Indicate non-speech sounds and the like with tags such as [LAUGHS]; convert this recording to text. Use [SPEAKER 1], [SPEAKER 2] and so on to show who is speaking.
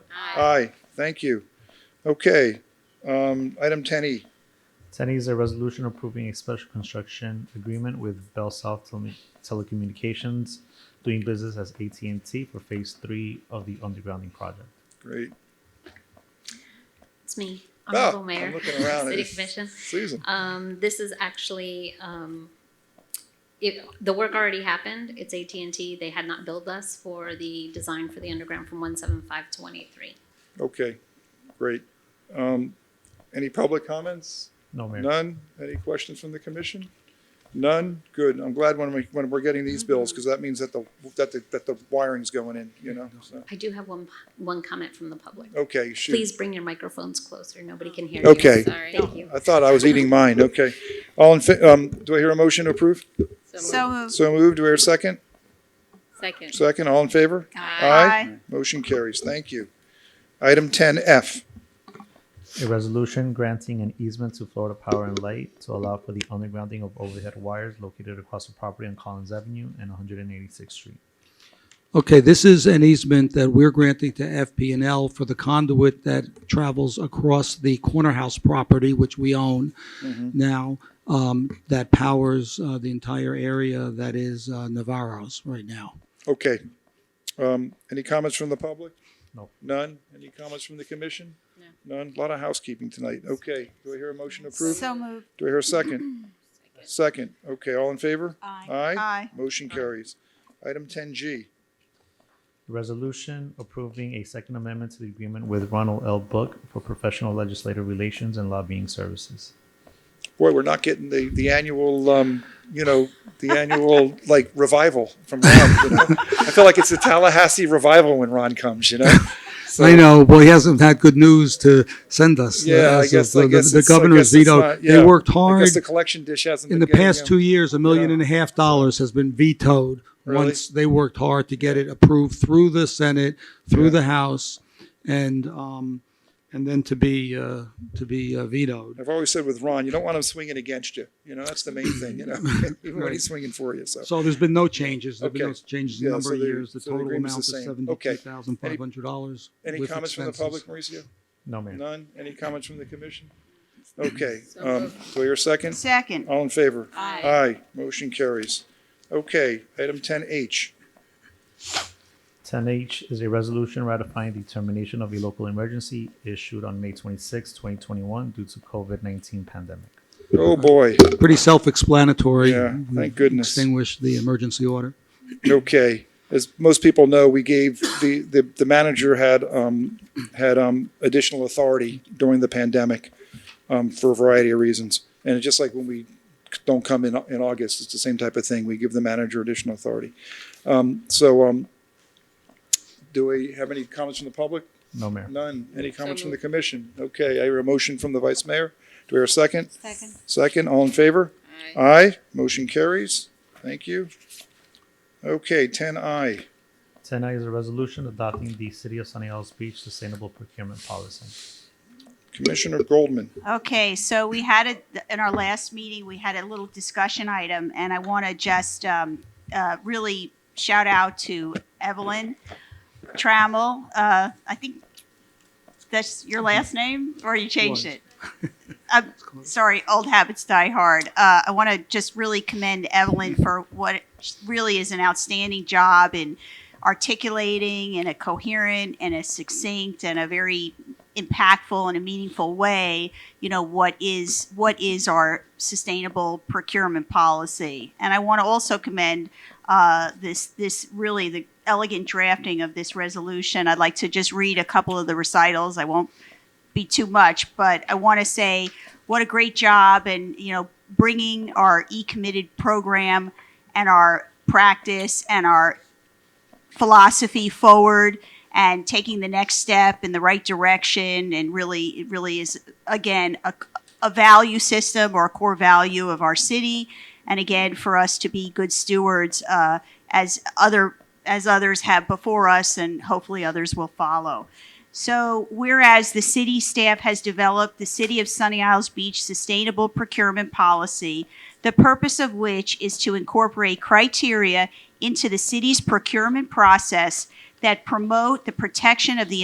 [SPEAKER 1] Aye, thank you. Okay, um, item ten E,
[SPEAKER 2] Ten E is a resolution approving a special construction agreement with Bell South Tele- Telecommunications, doing business as AT and T for Phase Three of the undergrounding project.
[SPEAKER 1] great.
[SPEAKER 3] It's me,
[SPEAKER 1] Ah,
[SPEAKER 3] Honorable
[SPEAKER 1] I'm
[SPEAKER 3] Mayor.
[SPEAKER 1] looking around.
[SPEAKER 3] City
[SPEAKER 1] It's-
[SPEAKER 3] Commission.
[SPEAKER 1] Susan,
[SPEAKER 3] Um, this is actually, um, it, the work already happened. It's AT&T. They had not billed us for the design for the underground from one seven five to one eight three.
[SPEAKER 1] okay, great. Um, any public comments?
[SPEAKER 2] No, Mayor.
[SPEAKER 1] None? Any questions from the commission? None? Good. I'm glad when we, when we're getting these
[SPEAKER 3] Mm-hmm.
[SPEAKER 1] bills, because that means that the, that the, that the wiring's going in, you know, so.
[SPEAKER 3] I do have one, one comment from the public.
[SPEAKER 1] Okay, shoot.
[SPEAKER 3] Please bring your microphones closer. Nobody can hear you.
[SPEAKER 1] Okay.
[SPEAKER 4] Sorry.
[SPEAKER 3] Thank you.
[SPEAKER 1] I thought I was eating mine, okay. All in, fa- um, do I hear a motion to approve?
[SPEAKER 4] So
[SPEAKER 5] So
[SPEAKER 4] moved.
[SPEAKER 5] moved.
[SPEAKER 1] So moved, do I hear a second?
[SPEAKER 4] Second.
[SPEAKER 1] Second, all in favor?
[SPEAKER 5] Aye.
[SPEAKER 1] Motion carries, thank you. Item ten F,
[SPEAKER 2] A resolution granting an easement to Florida Power and Light to allow for the undergrounding of overhead wires located across the property on Collins Avenue and 186th Street.
[SPEAKER 6] Okay, this is an easement that we're granting to FPNL for the conduit that travels across the corner house property, which we own
[SPEAKER 1] Mm-hmm.
[SPEAKER 6] now, um, that powers uh, the entire area that is uh, Navarro's right now.
[SPEAKER 1] okay. Um, any comments from the public?
[SPEAKER 2] No.
[SPEAKER 1] None? Any comments from the commission? No. None? A Lot of housekeeping tonight, okay. Do I hear a motion to approve?
[SPEAKER 5] So moved.
[SPEAKER 1] Do I hear a second? Second, okay, all in favor? Aye.
[SPEAKER 5] Aye.
[SPEAKER 1] Motion carries. Item ten G,
[SPEAKER 2] A resolution approving a second amendment to the agreement with Ronald L. Book for professional legislative relations and lobbying services.
[SPEAKER 1] boy, we're not getting the, the annual, um, you know, the annual, like, revival from Ron, you know? I feel like it's a Tallahassee revival when Ron comes, you know? So-
[SPEAKER 6] I know, well, he hasn't had good news to send us. uh,
[SPEAKER 1] Yeah, I
[SPEAKER 6] as of
[SPEAKER 1] guess, I
[SPEAKER 6] the-
[SPEAKER 1] guess.
[SPEAKER 6] The
[SPEAKER 1] it's- I
[SPEAKER 6] Governor
[SPEAKER 1] guess it's
[SPEAKER 6] Zito,
[SPEAKER 1] not- yeah.
[SPEAKER 6] they worked
[SPEAKER 1] I
[SPEAKER 6] hard.
[SPEAKER 1] guess the collection dish hasn't.
[SPEAKER 6] In the
[SPEAKER 1] been getting
[SPEAKER 6] past
[SPEAKER 1] him.
[SPEAKER 6] two years, a million
[SPEAKER 1] Yeah.
[SPEAKER 6] and a half dollars has been vetoed
[SPEAKER 1] Really?
[SPEAKER 6] once they worked hard to get it approved through the Senate,
[SPEAKER 1] Yeah.
[SPEAKER 6] through the House, and, um, and then to be, uh, to be uh, vetoed.
[SPEAKER 1] I've always said with Ron, you don't want him swinging against you, you know, that's the main thing,
[SPEAKER 6] [LAUGHS]
[SPEAKER 1] you know, [LAUGHS] even when he's swinging for you, so.
[SPEAKER 6] So there's been no changes. There've been no
[SPEAKER 1] Okay.
[SPEAKER 6] changes in
[SPEAKER 1] Yeah,
[SPEAKER 6] the number
[SPEAKER 1] so
[SPEAKER 6] of
[SPEAKER 1] the-
[SPEAKER 6] years. The
[SPEAKER 1] so the
[SPEAKER 6] total
[SPEAKER 1] agreement's
[SPEAKER 6] amount is
[SPEAKER 1] the same. Okay.
[SPEAKER 6] seventy-two thousand five hundred dollars.
[SPEAKER 1] Any comments from the public, Mauricio?
[SPEAKER 2] No, Mayor.
[SPEAKER 1] None? Any comments from the commission? Okay, um, so your second?
[SPEAKER 5] Second.
[SPEAKER 1] All in favor?
[SPEAKER 4] Aye.
[SPEAKER 1] Aye, motion carries. Okay, item ten H,
[SPEAKER 2] Ten H is a resolution ratifying the termination of a local emergency issued on May 26, twenty twenty-one due to COVID nineteen pandemic.
[SPEAKER 1] oh boy,
[SPEAKER 6] Pretty self-explanatory.
[SPEAKER 1] Yeah,
[SPEAKER 6] We
[SPEAKER 1] thank goodness.
[SPEAKER 6] Extinguish the emergency order.
[SPEAKER 1] okay. As most people know, we gave, the, the, the manager had, um, had, um, additional authority during the pandemic, um, for a variety of reasons. And it's just like when we don't come in, in August, it's the same type of thing. We give the manager additional authority. Um, so, um, do we have any comments from the public?
[SPEAKER 2] No, Mayor.
[SPEAKER 1] None. Any comments from the commission? Okay, I hear a motion from the vice mayor. Do I hear a second?
[SPEAKER 5] Second.
[SPEAKER 1] Second, all in favor?
[SPEAKER 4] Aye.
[SPEAKER 1] Aye, motion carries. Thank you. Okay, ten I.
[SPEAKER 2] Ten I is a resolution adopting the City of Sunny Isles Beach Sustainable Procurement Policy.
[SPEAKER 1] Commissioner Goldman,
[SPEAKER 5] Okay, so we had it, in our last meeting, we had a little discussion item, and I want to just um, uh, really shout out to Evelyn Trammell. Uh, I think that's your last name, or you changed
[SPEAKER 6] Was.
[SPEAKER 5] it? I'm sorry, old habits die hard. Uh, I want to just really commend Evelyn for what really is an outstanding job in articulating in a coherent and a succinct and a very impactful and a meaningful way you know what is what is our sustainable procurement policy and i want to also commend uh, this this really the elegant drafting of this resolution i'd like to just read a couple of the recitals i won't be too much but i want to say what a great job and you know bringing our e-committed program and our practice and our philosophy forward and taking the next step in the right direction and really it really is again a, a value system or a core value of our city and again for us to be good stewards uh, as other as others have before us and hopefully others will follow so whereas the city staff has developed the city of sunny isles beach sustainable procurement policy the purpose of which is to incorporate criteria into the city's procurement process that promote the protection of the